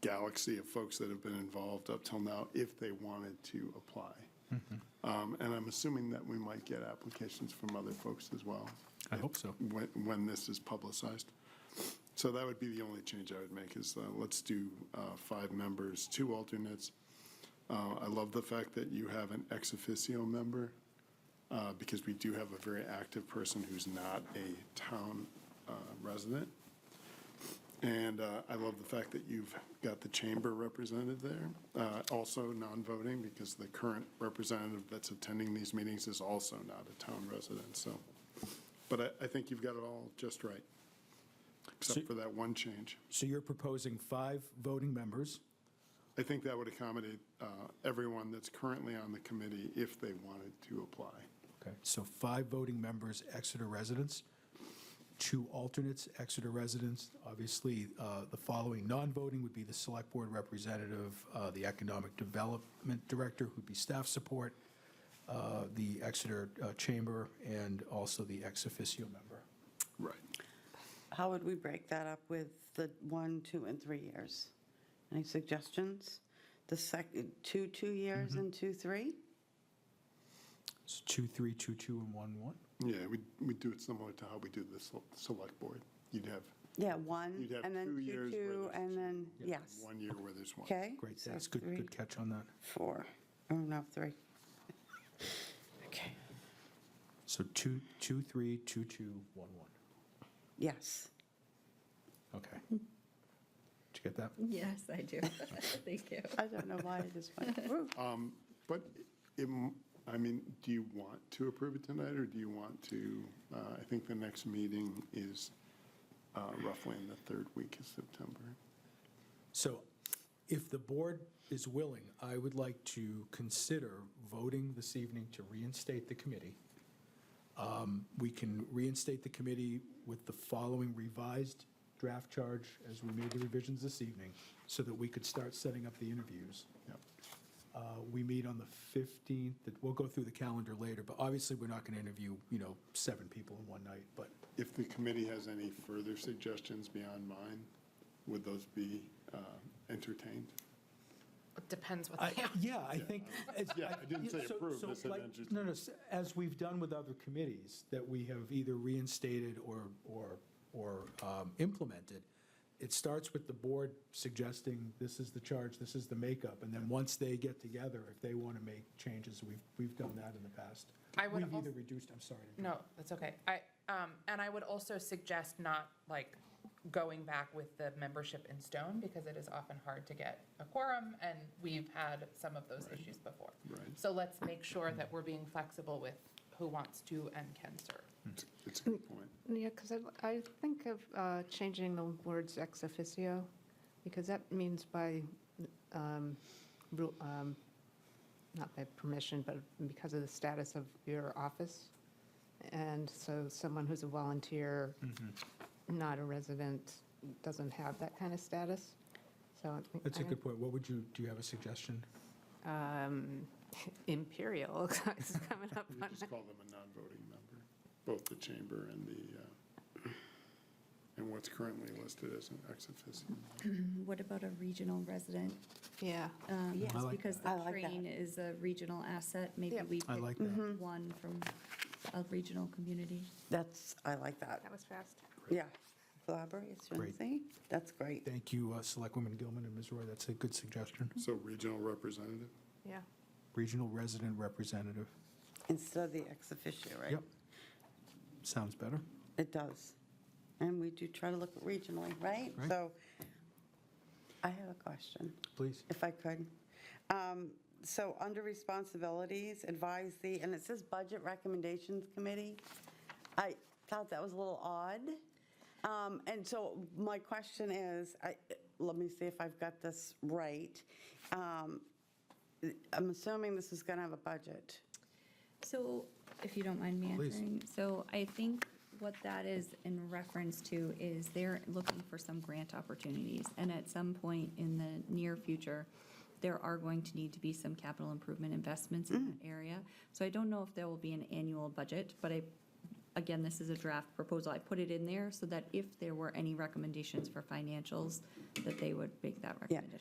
galaxy of folks that have been involved up till now if they wanted to apply. Um, And I'm assuming that we might get applications from other folks as well I hope so. when, when this is publicized. So that would be the only change I would make is uh, let's do uh, five members, two alternates. Uh, I love the fact that you have an ex officio member uh, because we do have a very active person who's not a town uh, resident. And uh, I love the fact that you've got the chamber represented there, uh, also non-voting because the current representative that's attending these meetings is also not a town resident. So but I, I think you've got it all just right, So- except for that one change. So you're proposing five voting members? I think that would accommodate uh, everyone that's currently on the committee if they wanted to apply. Okay. So five voting members, Exeter residents, two alternates, Exeter residents. Obviously, uh, the following non-voting would be the Select Board Representative, uh, the Economic Development Director, who'd be staff support, uh, the Exeter uh, Chamber, and also the ex officio member. Right. How would we break that up with the one, two, and three years? Any suggestions? The second, two, two years and two, three? It's two, three, two, two, and one, one. Yeah, we, we do it similar to how we do the sel- select board. You'd have Yeah, one, You'd have and then two two, years where two, there's and then, Yeah. yes, one year where there's one. okay? Great, so that's good, three, good catch on that. Four, oh, no, three. Okay, So two, two, three, two, two, one, one. yes. Okay. Did you get that? Yes, I do. Thank you. I don't know why I just went, "Ooh." But, it m- I mean, do you want to approve it tonight, or do you want to, uh, I think the next meeting is uh, roughly in the third week of September. So if the board is willing, I would like to consider voting this evening to reinstate the committee. Um, We can reinstate the committee with the following revised draft charge as we made the revisions this evening, so that we could start setting up the interviews. Yep. Uh, We meet on the 15th, that- we'll go through the calendar later, but obviously, we're not going to interview, you know, seven people in one night, but If the committee has any further suggestions beyond mine, would those be uh, entertained? It Depends what I- they are. Yeah, I think. as- Yeah, I didn't say so- approve, so I said like- interest- No, no, s- as we've done with other committees that we have either reinstated or, or, or um, implemented, it starts with the board suggesting, this is the charge, this is the makeup, and then once they get together, if they want to make changes, we've, we've done that in the past. I would We've either als- reduced, I'm sorry. to- No, that's okay. I, um, and I would also suggest not like going back with the membership in stone because it is often hard to get a quorum and we've had some of those issues before. Right. So let's make sure that we're being flexible with who wants to and can serve. It's a good point. Yeah, because I, I think of uh, changing the words ex officio, because that means by, um, ru- um, not by permission, but because of the status of your office. And so someone who's a volunteer, Mm-hmm. not a resident, doesn't have that kind of status, so. I think- That's I a don't- good point. What would you, do you have a suggestion? um, Imperial is coming up We on just call them a non-voting member, both the chamber and the, uh, and what's currently listed as an ex officio. What about a regional resident? Yeah, Um, Yes, like because I the like that. train is a regional asset. Maybe Yeah. we I pick like that. one from a regional community. That's, I like that that. was fast. Yeah, collaboration, Great. see? That's great. Thank you, uh, Selectwoman Gilman and Ms. Roy, that's a good suggestion. So regional representative? Yeah, Regional resident representative. Instead of the ex officio, right? Yep. Sounds better. It does. And we do try to look regionally, right? Right. So I have a question, Please. if I could. Um, So under responsibilities, advise the, and it says Budget Recommendations Committee. I thought that was a little odd. Um, And so my question is, I, let me see if I've got this right. Um, I'm assuming this is going to have a budget. So if you don't mind me Please. answering, so I think what that is in reference to is they're looking for some grant opportunities. And at some point in the near future, there are going to need to be some capital improvement investments in that area. So I don't know if there will be an annual budget, but I again, this is a draft proposal. I put it in there so that if there were any recommendations for financials, that they would make that Yeah. recommendation.